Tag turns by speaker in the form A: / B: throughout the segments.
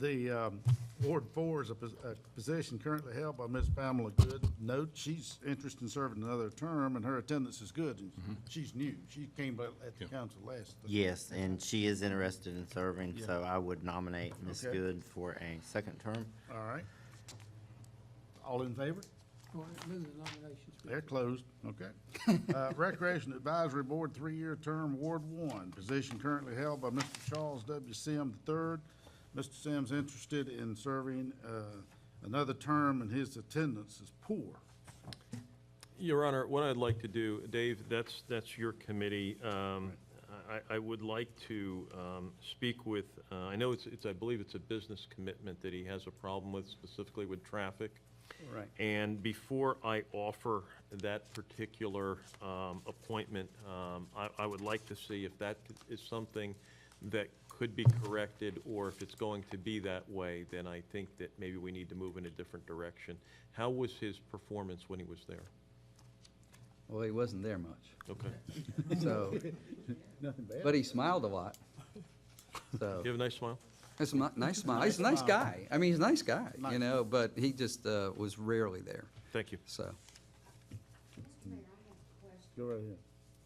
A: The um, Ward Four is a pos- a position currently held by Ms. Pamela Good. Note, she's interested in serving another term, and her attendance is good, and she's new. She came by- at the council last.
B: Yes, and she is interested in serving,
A: Yeah.
B: so I would nominate Ms.
A: Okay.
B: Good for a second term.
A: All right. All in favor?
C: All right, move the nominations.
A: They're closed, okay. Uh, Recreation Advisory Board, three-year term, Ward One, position currently held by Mr. Charles W. Sims III. Mr. Sims interested in serving uh, another term, and his attendance is poor.
D: Your Honor, what I'd like to do, Dave, that's, that's your committee. Um, I, I would like to um, speak with, uh, I know it's, it's, I believe it's a business commitment that he has a problem with, specifically with traffic.
A: Right.
D: And before I offer that particular um, appointment, um, I, I would like to see if that is something that could be corrected, or if it's going to be that way, then I think that maybe we need to move in a different direction. How was his performance when he was there?
E: Well, he wasn't there much,
D: Okay.
E: so,
A: Nothing bad.
E: but he smiled a lot. So,
D: You have a nice smile?
E: it's a mi- nice smile. He's a nice guy. I mean, he's a nice guy, you know, but he just uh, was rarely there,
D: Thank you.
E: so.
F: Mr. Mayor, I have a question.
A: Go right ahead.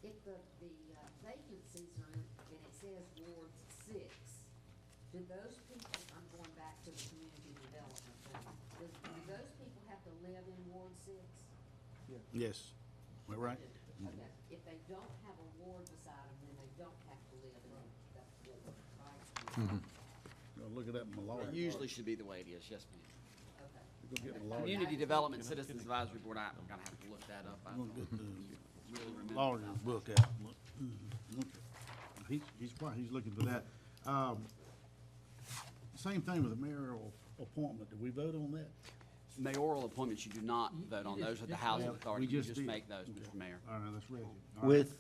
F: If the, the uh, vacancies are, and it says Ward Six, do those people, I'm going back to the community development thing, do, do those people have to live in Ward Six?
A: Yes. Am I right?
F: Okay, if they don't have a ward beside them, then they don't have to live in that ward, right?
A: Gonna look it up in my lawyer.
G: Usually should be the way it is, yes,
A: Oh,
G: ma'am.
F: Okay.
A: Gonna get my lawyer-
G: Community Development Citizens Advisory Board, I'm gonna have to look that up. I
A: gonna
G: don't
A: get the
G: really remember.
A: lawyer's book out. Look, mhm, okay. He's, he's, why he's looking for that. Um, Same thing with the mayoral appointment. Did we vote on that?
G: Mayoral appointments, you do not vote on. Those are the housing authority.
A: We
G: You just
A: did.
G: make those,
A: Okay.
G: Mr. Mayor.
A: All right, that's ready. All right.
B: With,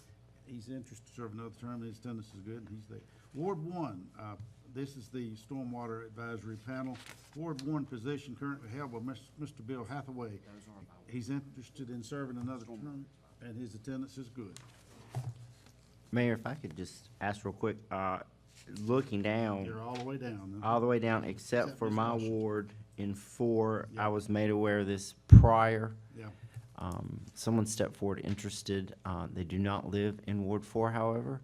A: He's interested to serve another term, his attendance is good, and he's there. Ward one, uh, this is the Stormwater Advisory Panel. Ward one position currently held by Mis- Mr. Bill Hathaway. He's interested in serving another term, and his attendance is good.
B: Mayor, if I could just ask real quick, uh, looking down,
A: You're all the way down. huh?
B: all the way down, except
A: Except
B: for
A: Ms.
B: my
A: Washington.
B: ward in four,
A: Yeah.
B: I was made aware of this prior.
A: Yeah.
B: Um, Someone stepped forward interested. Uh, They do not live in Ward Four, however.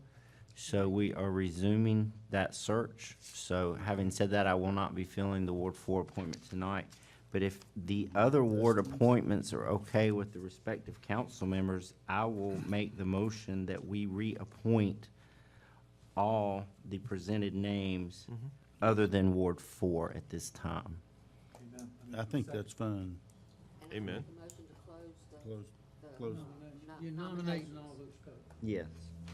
B: So we are resuming that search. So having said that, I will not be filling the Ward Four appointment tonight. But if the other ward appointments are okay with the respective council members, I will make the motion that we reappoint all the presented names other than Ward Four at this time.
A: I think that's fine.
F: And I
D: Amen.
F: make a motion to close the.
A: Close.
F: the
A: Close.
F: nom-
C: You're nominating all those folks.
B: Yes.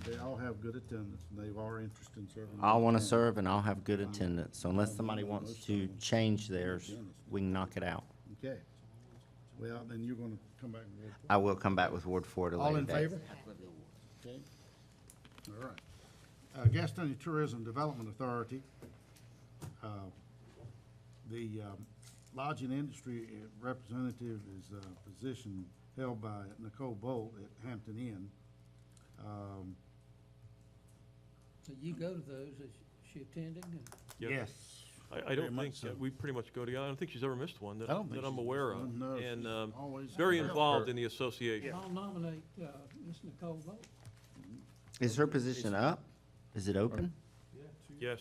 A: They all have good attendance, and they are interested in serving.
B: I
A: another
B: want to
A: term.
B: serve and I'll have good attendance, so unless somebody wants to change theirs, we can knock it out.
A: Okay. Well, then you're gonna come back and. vote for it.
B: I will come back with Ward Four at a
A: All
B: later
A: in
B: date.
A: favor? Okay. All right. Uh, Gastonia Tourism Development Authority, uh, the um, lodging industry uh, representative is a position held by Nicole Bolt at Hampton Inn. Um,
C: So you go to those, is she attending? And
D: Yep.
A: Yes.
D: I, I
A: Very
D: don't
A: much
D: think,
A: so.
D: we pretty much go together. I don't think she's ever missed one that,
A: I don't think
D: that I'm
A: she's
D: aware
A: missed
D: of.
A: one, no,
D: And,
A: she's
D: um,
A: always
D: very
A: helped her.
D: involved in the association.
C: I'll nominate, uh, Ms. Nicole Bolt.
B: Is her position up? Is it open?
D: Yes,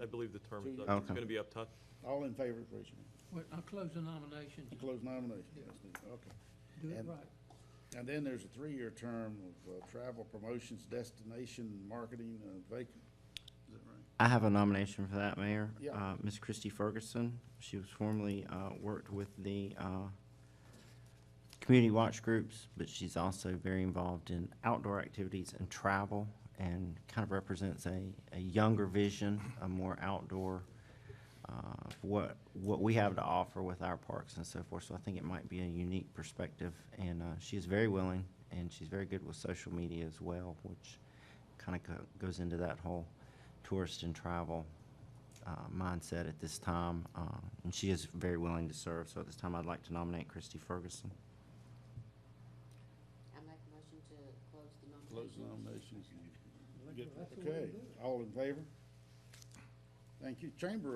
D: I believe the term is up. It's
B: Okay.
D: gonna be up top.
A: All in favor, please. You
C: Wait, I'll close the nominations,
A: can Close nomination. Okay.
C: do it
A: And-
C: right.
A: And then there's a three-year term of uh, travel promotions, destination, marketing, uh, vacant. Is that right?
B: I have a nomination for that, Mayor.
A: Yeah.
B: Uh, Ms. Christie Ferguson, she was formerly, uh, worked with the, uh, community watch groups, but she's also very involved in outdoor activities and travel and kind of represents a, a younger vision, a more outdoor, uh, what, what we have to offer with our parks and so forth. So I think it might be a unique perspective and, uh, she is very willing and she's very good with social media as well, which kind of goes into that whole tourist and travel uh, mindset at this time, uh, and she is very willing to serve. So at this time, I'd like to nominate Christy Ferguson.
F: I make a motion to close the nominations.
A: Close nominations. Okay, all in favor? Thank you. Chamber